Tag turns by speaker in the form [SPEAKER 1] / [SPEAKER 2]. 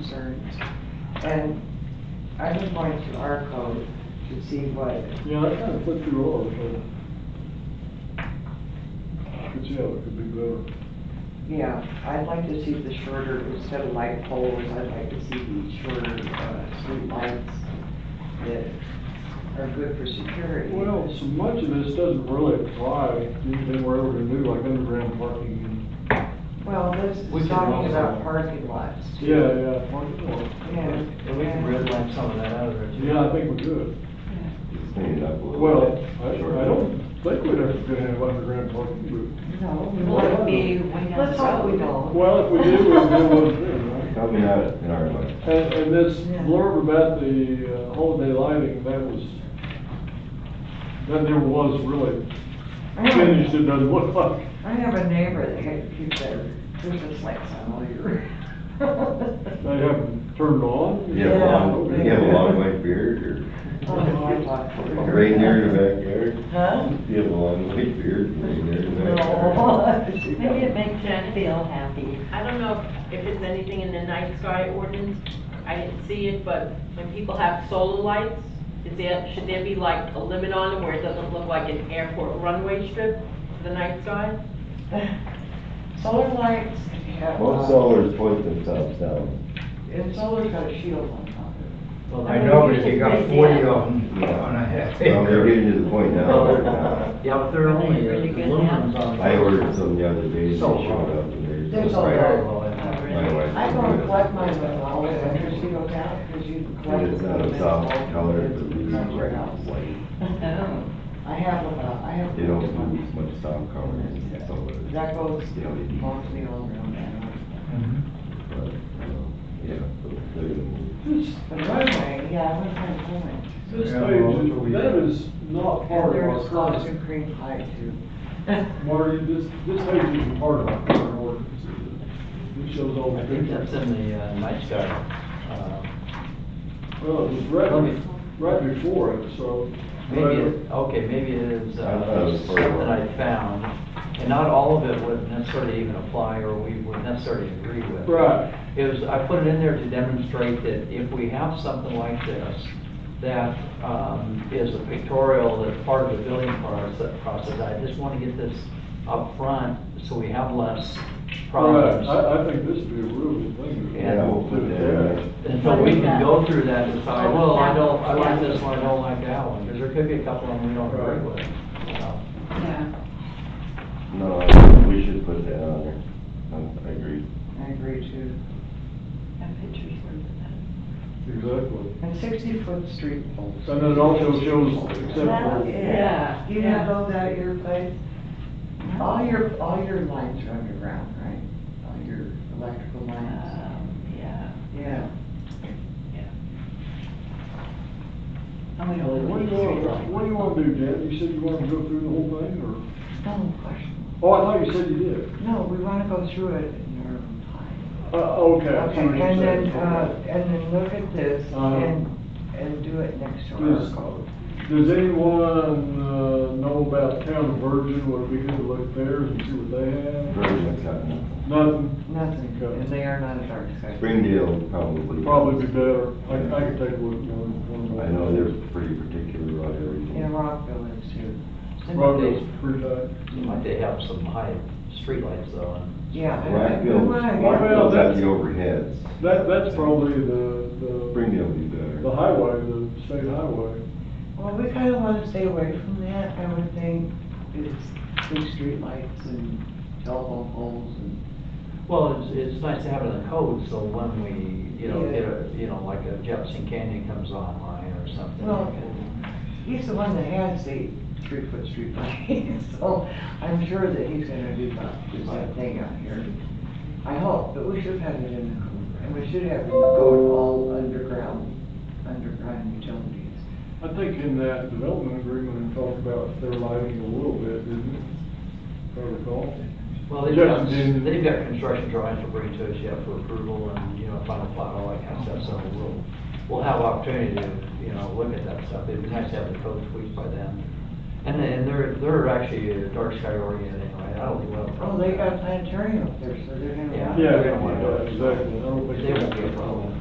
[SPEAKER 1] concerns. And I've been going through our code to see what,
[SPEAKER 2] Yeah, I kind of flipped through all of it. Could see how it could be better.
[SPEAKER 1] yeah, I'd like to see the shorter, instead of light poles, I'd like to see the shorter, uh, street lights that are good for security.
[SPEAKER 2] Well, so much of this doesn't really apply to anything we're ever gonna do, like underground parking and,
[SPEAKER 1] Well, this
[SPEAKER 3] We
[SPEAKER 1] is
[SPEAKER 3] can
[SPEAKER 1] talking
[SPEAKER 3] also-
[SPEAKER 1] about parking lots. too.
[SPEAKER 2] yeah, yeah, parking lot.
[SPEAKER 1] And-
[SPEAKER 3] And we can redline some of that out of there too.
[SPEAKER 2] Yeah, I think we could.
[SPEAKER 4] Clean it up a little.
[SPEAKER 2] Well,
[SPEAKER 4] bit.
[SPEAKER 2] I, I don't think we'd ever gonna have underground parking,
[SPEAKER 1] No, we want to be, let's hope we
[SPEAKER 2] but,
[SPEAKER 1] don't.
[SPEAKER 2] well, if we did, we'd do one thing, right?
[SPEAKER 4] Probably not in our life.
[SPEAKER 2] And, and this
[SPEAKER 1] Yeah.
[SPEAKER 2] blurb about the uh, holiday lighting, that was, that never was really
[SPEAKER 1] I have-
[SPEAKER 2] finished, it doesn't look like.
[SPEAKER 1] I have a neighbor that had to keep their Christmas lights on all year.
[SPEAKER 2] They haven't turned on.
[SPEAKER 4] You have a long,
[SPEAKER 1] Yeah.
[SPEAKER 4] you have a long white beard or reindeer in
[SPEAKER 1] Huh?
[SPEAKER 4] the backyard? You have a long white beard, reindeer in the backyard.
[SPEAKER 1] No.
[SPEAKER 5] Maybe it makes Jen feel happy.
[SPEAKER 6] I don't know if it's anything in the night sky ordinance, I didn't see it, but when people have solar lights, is there, should there be like a limit on them where it doesn't look like an airport runway strip for the night sky?
[SPEAKER 1] Solar lights have,
[SPEAKER 4] Most
[SPEAKER 1] uh,
[SPEAKER 4] sellers point themselves down.
[SPEAKER 1] and solar's got a shield on top of it.
[SPEAKER 5] I know, but if you got 40 of
[SPEAKER 4] them on
[SPEAKER 7] a half
[SPEAKER 4] Well, they're getting to the point now. where, uh,
[SPEAKER 3] Yeah, but they're only, uh,
[SPEAKER 5] Really good
[SPEAKER 3] aluminum's on.
[SPEAKER 4] I ordered some the other day, and they
[SPEAKER 3] So
[SPEAKER 4] showed
[SPEAKER 3] hard.
[SPEAKER 4] up and they're
[SPEAKER 1] There's
[SPEAKER 4] just
[SPEAKER 1] all
[SPEAKER 4] like,
[SPEAKER 1] that.
[SPEAKER 4] my wife.
[SPEAKER 1] I go and
[SPEAKER 4] said,
[SPEAKER 1] collect mine with all the vendors you go down, because you can collect.
[SPEAKER 4] It's not
[SPEAKER 1] them
[SPEAKER 4] a
[SPEAKER 1] in
[SPEAKER 4] soft
[SPEAKER 1] bulk,
[SPEAKER 4] color,
[SPEAKER 1] it's
[SPEAKER 4] but it's
[SPEAKER 1] not your
[SPEAKER 4] bright
[SPEAKER 1] house.
[SPEAKER 4] white.
[SPEAKER 5] Oh,
[SPEAKER 1] I have about, I have.
[SPEAKER 4] They don't
[SPEAKER 1] one.
[SPEAKER 4] use much soft color, it's solar.
[SPEAKER 1] That goes,
[SPEAKER 4] They don't need-
[SPEAKER 1] walks me all around that.
[SPEAKER 5] Mm-hmm.
[SPEAKER 4] But, uh, yeah, so they're gonna move.
[SPEAKER 2] This
[SPEAKER 1] But anyway, yeah, I went from home.
[SPEAKER 2] this
[SPEAKER 3] Yeah,
[SPEAKER 2] page,
[SPEAKER 3] well,
[SPEAKER 2] is- that is not
[SPEAKER 1] And
[SPEAKER 2] part
[SPEAKER 1] there's
[SPEAKER 2] of our current,
[SPEAKER 1] Slawson Creek High too.
[SPEAKER 2] Marty, this, this page isn't part of our current ordinance. It shows all the
[SPEAKER 3] I think that's
[SPEAKER 2] pictures.
[SPEAKER 3] in the, uh, night sky, uh,
[SPEAKER 2] Well, it was right, right before it, so.
[SPEAKER 3] maybe, it- okay, maybe it is,
[SPEAKER 4] I thought it
[SPEAKER 3] uh,
[SPEAKER 4] was part of
[SPEAKER 3] something
[SPEAKER 4] our-
[SPEAKER 3] I found. And not all of it would necessarily even apply, or we would necessarily agree with.
[SPEAKER 2] Right.
[SPEAKER 3] It was, I put it in there to demonstrate that if we have something like this, that um, is a pictorial, that's part of the building proce- process, I just want to get this up front so we have less
[SPEAKER 2] Right,
[SPEAKER 3] problems.
[SPEAKER 2] I, I think this would be a really good thing.
[SPEAKER 3] Yeah,
[SPEAKER 4] we'll put that in
[SPEAKER 3] And so we can go through that and decide, well, I don't, I like this one, I don't like that one, because there could be a couple of them we don't agree with. Uh, you know.
[SPEAKER 5] yeah.
[SPEAKER 4] No, I think we should put that on there. Um, I agree.
[SPEAKER 1] I agree too.
[SPEAKER 5] That picture's worth it.
[SPEAKER 2] Exactly.
[SPEAKER 1] And sixty foot street poles.
[SPEAKER 2] And it also shows except
[SPEAKER 5] Well,
[SPEAKER 2] for.
[SPEAKER 5] yeah.
[SPEAKER 1] You have those at your place? All your, all your lines are underground, right? All your electrical lines?
[SPEAKER 5] Um, Yeah.
[SPEAKER 1] Uh, Yeah. Oh,
[SPEAKER 5] And we don't
[SPEAKER 2] What do
[SPEAKER 5] need
[SPEAKER 2] you want, what
[SPEAKER 5] streetlights.
[SPEAKER 2] do you want to do, Dad? You said you wanted to go through the whole thing,
[SPEAKER 1] No question.
[SPEAKER 2] or? Oh, I thought you said you did.
[SPEAKER 1] No, we want to go through it in our own time.
[SPEAKER 2] Uh, okay. I see
[SPEAKER 1] Okay,
[SPEAKER 2] what you're
[SPEAKER 1] and then,
[SPEAKER 2] saying.
[SPEAKER 1] uh, and then look at this
[SPEAKER 2] Uh-huh.
[SPEAKER 1] and, and do it next to
[SPEAKER 2] Yes.
[SPEAKER 1] our code.
[SPEAKER 2] Does anyone, uh, know about Town of Virgin? Would it be good to look there and see what they have?
[SPEAKER 4] Virgin's got nothing.
[SPEAKER 2] Nothing,
[SPEAKER 1] Nothing,
[SPEAKER 2] Okay.
[SPEAKER 1] and they are not a dark sky.
[SPEAKER 4] Springdale probably.
[SPEAKER 2] probably be better. I, I could take a look, one, one more.
[SPEAKER 4] I know they're pretty particular about everything.
[SPEAKER 1] In Rockville is too.
[SPEAKER 2] Probably it's pretty tight.
[SPEAKER 3] Might they have some high streetlights though, and
[SPEAKER 1] Yeah. I- I- we
[SPEAKER 4] Rockville,
[SPEAKER 1] wanna-
[SPEAKER 2] Well,
[SPEAKER 4] Rockville's got
[SPEAKER 2] that's-
[SPEAKER 4] the overheads.
[SPEAKER 2] That, that's probably the, the,
[SPEAKER 4] Springdale would be
[SPEAKER 2] the
[SPEAKER 4] better.
[SPEAKER 2] highway, the state highway.
[SPEAKER 1] Well, we kind of want to stay away from that, I would think, it's big streetlights and telephone poles and.
[SPEAKER 3] Well, it's, it's nice to have it in the code, so when we, you know,
[SPEAKER 1] Yeah.
[SPEAKER 3] get a, you know, like a Jefferson Canyon comes online or something.
[SPEAKER 1] Well-
[SPEAKER 3] we can-
[SPEAKER 1] He's the one that has the three-foot streetlight, so I'm sure that he's gonna do that, do that thing out here. I hope, but we should have it in the code, and we should have it go all underground, underground utilities.
[SPEAKER 2] I think in that development agreement, it talked about their lighting a little bit, didn't it? If I recall.
[SPEAKER 3] Well, they've got,
[SPEAKER 2] Jefferson-
[SPEAKER 3] they've got construction drawings to bring to us yet for approval and, you know, final plot, all that kind of stuff, so we'll, we'll have opportunity to, you know, look at that stuff. It'd be nice to have the code tweaked by then. And then, they're, they're actually a dark sky oriented anyway, I don't think we'll have a
[SPEAKER 1] Oh,
[SPEAKER 3] problem.
[SPEAKER 1] they got planetarium up there, so they're gonna.
[SPEAKER 3] Yeah.
[SPEAKER 2] Yeah,
[SPEAKER 3] Yeah,
[SPEAKER 2] exactly. I don't
[SPEAKER 3] They
[SPEAKER 2] think.
[SPEAKER 3] won't be a problem.